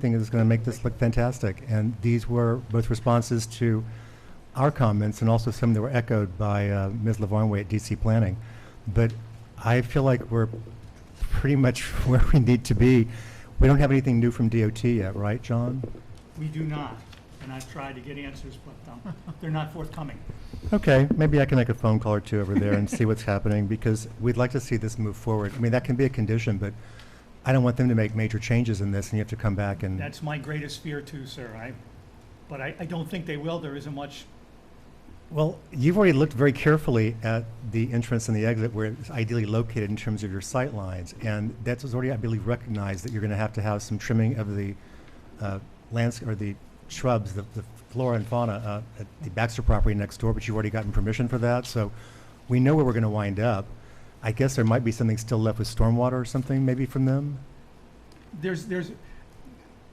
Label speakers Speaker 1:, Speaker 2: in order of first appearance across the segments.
Speaker 1: think is going to make this look fantastic. And these were both responses to our comments and also some that were echoed by uh, Ms. Lavarnway at DC Planning. But I feel like we're pretty much where we need to be. We don't have anything new from DOT yet, right, John?
Speaker 2: We do not, and I've tried to get answers, but um, they're not forthcoming.
Speaker 1: Okay, maybe I can make a phone call or two over there and see what's happening, because we'd like to see this move forward. I mean, that can be a condition, but I don't want them to make major changes in this, and you have to come back and...
Speaker 2: That's my greatest fear too, sir. I, but I, I don't think they will. There isn't much,
Speaker 1: Well, you've already looked very carefully at the entrance and the exit where it's ideally located in terms of your sight lines, and that's already, I believe, recognized that you're going to have to have some trimming of the uh, lands, or the shrubs, the the flora and fauna uh, at the Baxter property next door, but you've already gotten permission for that, so we know where we're going to wind up. I guess there might be something still left with stormwater or something, maybe from them?
Speaker 2: there's, there's,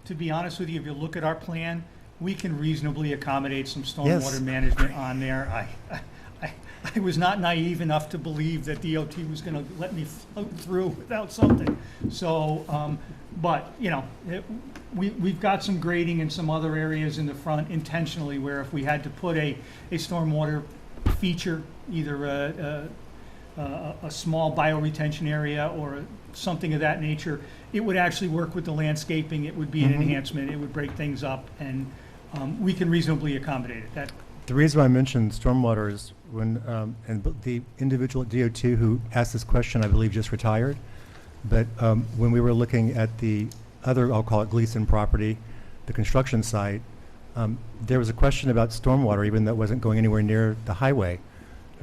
Speaker 2: to be honest with you, if you look at our plan, we can reasonably accommodate some
Speaker 1: Yes.
Speaker 2: stormwater management on there. I, I, I was not naive enough to believe that DOT was gonna let me float through without something. So, um, but, you know, it, we, we've got some grading in some other areas in the front intentionally where if we had to put a, a stormwater feature, either a, a, a, a small bioretention area or something of that nature, it would actually work with the landscaping, it would be an
Speaker 3: Mm-hmm.
Speaker 1: Mhm.
Speaker 2: enhancement, it would break things up, and, um, we can reasonably accommodate it, that,
Speaker 1: The reason I mentioned stormwater is when, um, and b- the individual at DOT who asked this question, I believe, just retired. But um, when we were looking at the other, I'll call it Gleason property, the construction site, um, there was a question about stormwater, even though it wasn't going anywhere near the highway,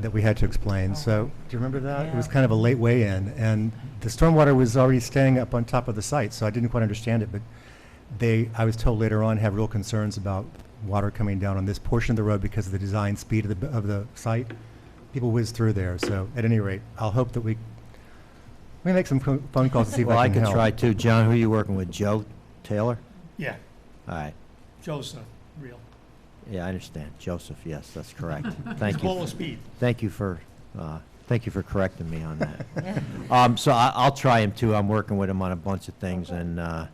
Speaker 1: that we had to explain. So, do you remember that? It was
Speaker 3: Yeah.
Speaker 1: kind of a late weigh-in, and the stormwater was already standing up on top of the site, so I didn't quite understand it, but they, I was told later on, have real concerns about water coming down on this portion of the road because of the design speed of the, of the site. People whiz through there, so at any rate, I'll hope that we, we make some co- phone calls to see if
Speaker 3: Well,
Speaker 1: I
Speaker 3: I
Speaker 1: can
Speaker 3: could
Speaker 1: help.
Speaker 3: try too. John, who are you working with? Joe Taylor?
Speaker 2: yeah,
Speaker 3: All right.
Speaker 2: Joe's the real,
Speaker 3: Yeah, I understand. Joseph, yes, that's correct.
Speaker 2: he's
Speaker 3: Thank
Speaker 2: full
Speaker 3: you.
Speaker 2: of speed.
Speaker 3: Thank you for, uh, thank you for correcting me on that. Um, so I, I'll try him too. I'm working with him on a bunch of things and, uh,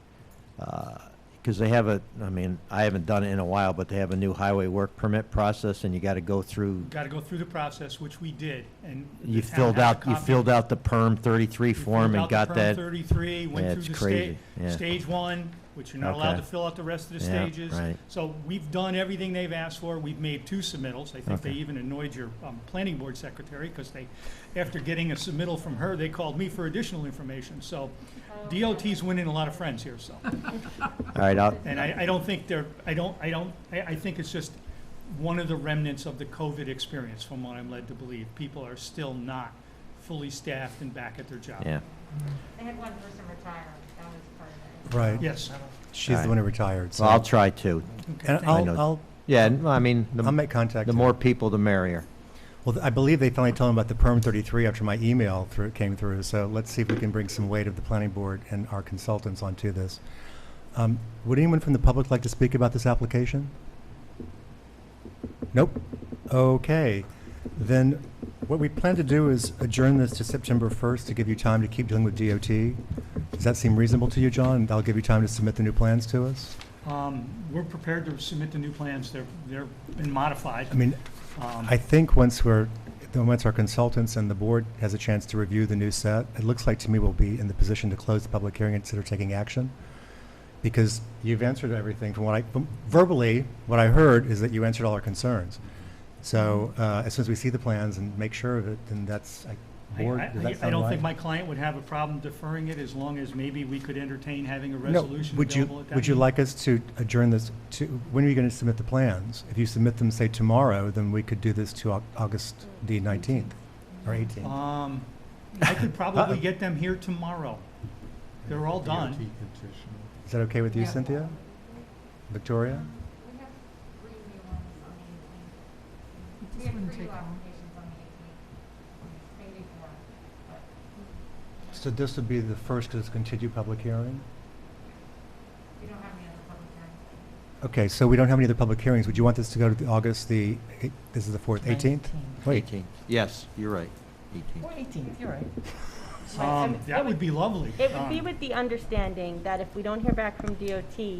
Speaker 3: because they have a, I mean, I haven't done it in a while, but they have a new highway work permit process and you got to go through,
Speaker 2: Got to go through the process, which we did, and.
Speaker 3: you
Speaker 2: the town
Speaker 3: filled
Speaker 2: has a
Speaker 3: out, you
Speaker 2: copy.
Speaker 3: filled out the perm 33
Speaker 2: We filled
Speaker 3: form and
Speaker 2: out the
Speaker 3: got
Speaker 2: perm
Speaker 3: that.
Speaker 2: Thirty-three,
Speaker 3: Yeah,
Speaker 2: went
Speaker 3: it's
Speaker 2: through the
Speaker 3: crazy,
Speaker 2: stage,
Speaker 3: yeah.
Speaker 2: stage one, which you're not allowed
Speaker 3: Okay.
Speaker 2: to fill out the rest of the
Speaker 3: Yeah,
Speaker 2: stages.
Speaker 3: right.
Speaker 2: So we've done everything they've asked for. We've made two submittals. I think they
Speaker 3: Okay.
Speaker 2: even annoyed your um, planning board secretary because they, after getting a submittal from her, they called me for additional information. So DOT's winning a lot of friends here, so.
Speaker 3: All right, I'll,
Speaker 2: And I, I don't think they're, I don't, I don't, I, I think it's just one of the remnants of the COVID experience from what I'm led to believe. People are still not fully staffed and back at their job.
Speaker 3: yeah.
Speaker 4: They had one person retire, that was part of it.
Speaker 1: Right.
Speaker 2: Yes.
Speaker 1: She's the one who retired, so.
Speaker 3: Well, I'll try too.
Speaker 1: And
Speaker 3: I know.
Speaker 1: I'll, I'll,
Speaker 3: Yeah, and, I mean, the-
Speaker 1: I'll make contact.
Speaker 3: the
Speaker 1: and-
Speaker 3: more people, the merrier.
Speaker 1: Well, I believe they finally told him about the perm 33 after my email through, came through, so let's see if we can bring some weight of the planning board and our consultants onto this. Um, Would anyone from the public like to speak about this application? Nope. Okay. Then what we plan to do is adjourn this to September 1st to give you time to keep dealing with DOT. Does that seem reasonable to you, John? And that'll give you time to submit the new plans to us?
Speaker 2: Um, we're prepared to submit the new plans. They're, they're been modified.
Speaker 1: I mean,
Speaker 2: Um,
Speaker 1: I think once we're, then once our consultants and the board has a chance to review the new set, it looks like to me we'll be in the position to close the public hearing and consider taking action. Because you've answered everything from what I, from verbally, what I heard is that you answered all our concerns. So, uh, as soon as we see the plans and make sure of it, then that's, I,
Speaker 2: I-
Speaker 1: board,
Speaker 2: I-
Speaker 1: does that
Speaker 2: I
Speaker 1: sound
Speaker 2: don't think
Speaker 1: right?
Speaker 2: my client would have a problem deferring it as long as maybe we could entertain having a
Speaker 1: No,
Speaker 2: resolution
Speaker 1: would you-
Speaker 2: available at that.
Speaker 1: Would you
Speaker 2: meeting.
Speaker 1: like us to adjourn this to, when are you gonna submit the plans? If you submit them, say, tomorrow, then we could do this to Au- August the nineteenth or eighteenth.
Speaker 2: Um, I could probably get them here tomorrow. They're all done.
Speaker 1: Is that okay with you,
Speaker 4: Yeah.
Speaker 1: Cynthia? Victoria?
Speaker 4: We have three new ones on the eighteenth. We have three new applications on the eighteenth, maybe four, but
Speaker 1: So this would be the first, because it's continued public hearing?
Speaker 4: we don't have any other public hearings.
Speaker 1: Okay, so we don't have any other public hearings. Would you want this to go to the August, the, eight- this is the 4th, 18th? Wait,
Speaker 3: 18. Yes, you're right, 18.
Speaker 5: Or 18th, you're right.
Speaker 2: Um, that would be lovely.
Speaker 6: It would be
Speaker 2: Um,
Speaker 6: with the understanding that if we don't hear back from DOT,